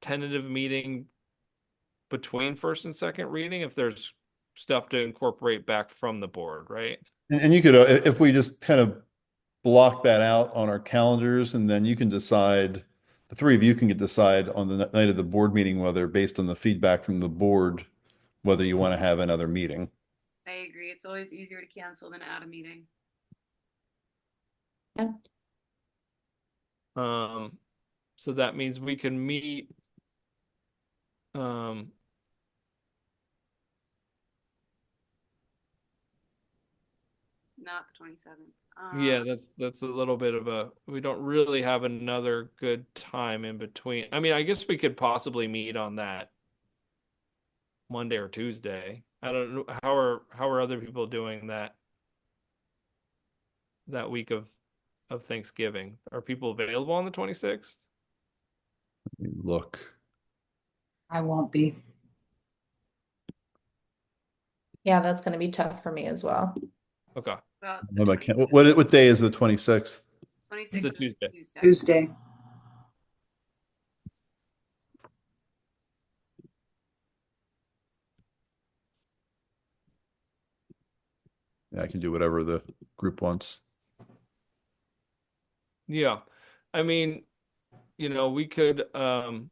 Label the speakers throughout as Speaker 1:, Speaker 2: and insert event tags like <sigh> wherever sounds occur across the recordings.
Speaker 1: tentative meeting between first and second reading if there's stuff to incorporate back from the board, right?
Speaker 2: And, and you could, uh, i- if we just kind of block that out on our calendars and then you can decide, the three of you can get decide on the n- night of the board meeting, whether based on the feedback from the board, whether you want to have another meeting.
Speaker 3: I agree. It's always easier to cancel than add a meeting.
Speaker 1: Um, so that means we can meet. Um.
Speaker 3: Not the Um, twenty seventh.
Speaker 4: Uh,
Speaker 1: Yeah, that's that's a little bit of a we don't really have another good time in between. I mean, I guess we could possibly meet on that Monday or Tuesday. I don't know how are how are other people doing that that week of of Thanksgiving? Are people available on the 26th?
Speaker 2: Look,
Speaker 4: I won't be.
Speaker 5: Yeah, that's gonna be tough for me as well.
Speaker 1: Okay.
Speaker 2: what about Ken- what, what what day is the 26th?
Speaker 3: Twenty
Speaker 1: It's a
Speaker 3: sixth
Speaker 1: Tuesday.
Speaker 3: Tuesday.
Speaker 4: Tuesday.
Speaker 2: Yeah, I can do whatever the group wants.
Speaker 1: Yeah. I mean, you know, we could um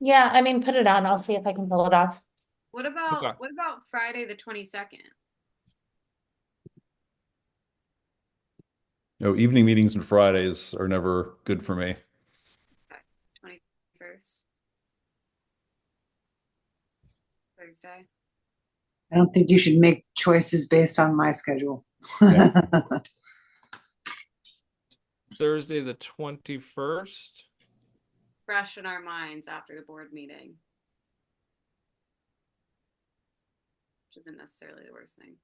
Speaker 5: Yeah, I mean, put it on. I'll see if I can pull it off.
Speaker 3: What about
Speaker 1: Okay.
Speaker 3: what about Friday the twenty second?
Speaker 2: No, evening meetings and Fridays are never good for me.
Speaker 3: Twenty first. Thursday.
Speaker 4: I don't think you should make choices based on my schedule.
Speaker 2: Yeah.
Speaker 1: Thursday the 21st.
Speaker 3: Fresh in our minds after the board meeting. Which isn't necessarily the worst thing.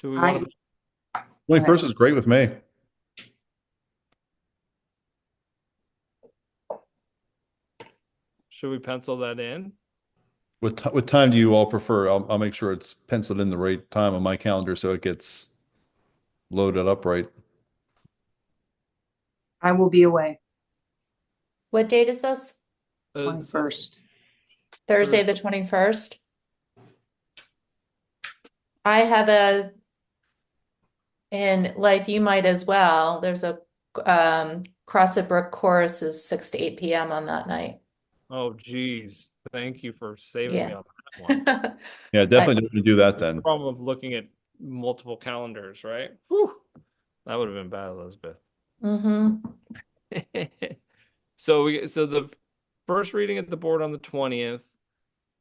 Speaker 1: Do we
Speaker 4: I-
Speaker 1: want to
Speaker 2: 21st is great with me.
Speaker 1: should we pencil that in?
Speaker 2: What, ti- what time do you all prefer? I'll, I'll make sure it's penciled in the right time on my calendar so it gets loaded up right.
Speaker 4: <laughs> I will be away
Speaker 5: What date is this?
Speaker 1: Uh,
Speaker 4: twenty-first.
Speaker 5: Thursday, the twenty-first? I have a, in life, you might as well. There's a, um, Crossed Brook Chorus is six to eight PM on that night. <laughs>
Speaker 1: Oh, geez. Thank you for saving me
Speaker 5: Yeah.
Speaker 1: on that
Speaker 5: <laughs>
Speaker 1: one.
Speaker 2: Yeah, definitely don't do that then.
Speaker 1: Problem of looking at multiple calendars, right? Whew. That would have been bad, Elizabeth. <laughs>
Speaker 5: hmm
Speaker 1: so we so the first reading at the board on the 20th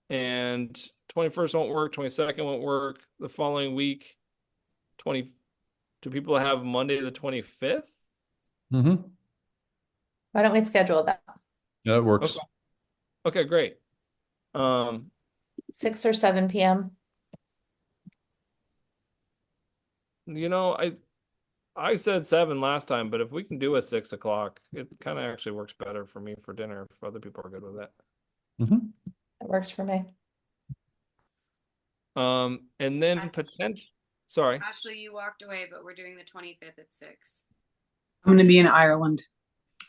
Speaker 1: and 21st won't work, 22nd won't work. The following week 20 do people have Monday the 25th?
Speaker 2: Mm-hmm.
Speaker 5: Why don't we schedule that?
Speaker 2: Yeah, that works.
Speaker 1: Okay, great. Um
Speaker 5: Six or seven PM?
Speaker 1: You know, I I said seven last time, but if we can do a six o'clock, it kind of actually works better for me for dinner if other people are good with it.
Speaker 2: Mhm.
Speaker 5: That works for me.
Speaker 1: Um, and then
Speaker 3: Actually-
Speaker 1: potential, sorry.
Speaker 3: Actually, you walked away, but we're doing the twenty fifth at six.
Speaker 4: I'm gonna be in Ireland.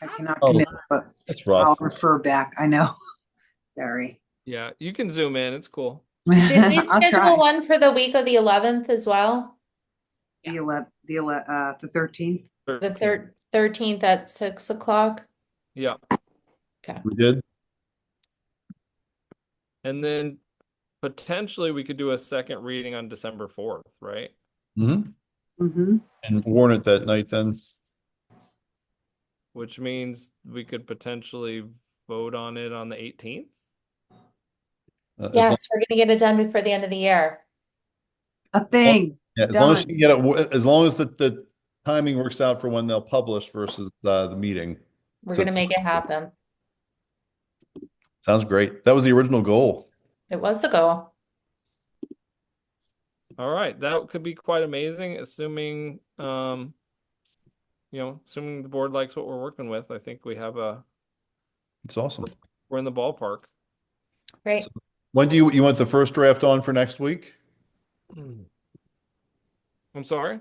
Speaker 4: I cannot
Speaker 2: Oh.
Speaker 4: commit, but
Speaker 2: That's
Speaker 4: I'll
Speaker 2: rough.
Speaker 4: refer back. I know. <laughs> Sorry.
Speaker 1: Yeah, you can zoom in. It's cool.
Speaker 5: Did
Speaker 4: <laughs>
Speaker 5: we
Speaker 4: I'll try.
Speaker 5: schedule one for the week of the eleventh as well?
Speaker 4: The ele, the ele, uh, the thirteenth.
Speaker 5: The thir- thirteenth at six o'clock?
Speaker 1: Yeah,
Speaker 2: We did?
Speaker 1: and then potentially we could do a second reading on December fourth, right?
Speaker 2: hmm
Speaker 4: Mm-hmm.
Speaker 2: And warn it that night then.
Speaker 1: Which means we could potentially vote on it on the eighteenth.
Speaker 2: Uh, as long-
Speaker 5: Yes, we're gonna get it done before the end of the year.
Speaker 4: A thing.
Speaker 2: yeah, As long as you
Speaker 4: done.
Speaker 2: can get it, wo- as long as the, the timing works out for when they'll publish versus uh, the meeting.
Speaker 5: We're
Speaker 2: So-
Speaker 5: gonna make it happen.
Speaker 2: Sounds great. That was the original goal.
Speaker 5: It was a goal.
Speaker 1: All right, that could be quite amazing, assuming um you know, assuming the board likes what we're working with. I think we have a
Speaker 2: It's awesome.
Speaker 1: we're in the ballpark.
Speaker 5: Great.
Speaker 2: When do you, you want the first draft on for next week?
Speaker 1: I'm sorry?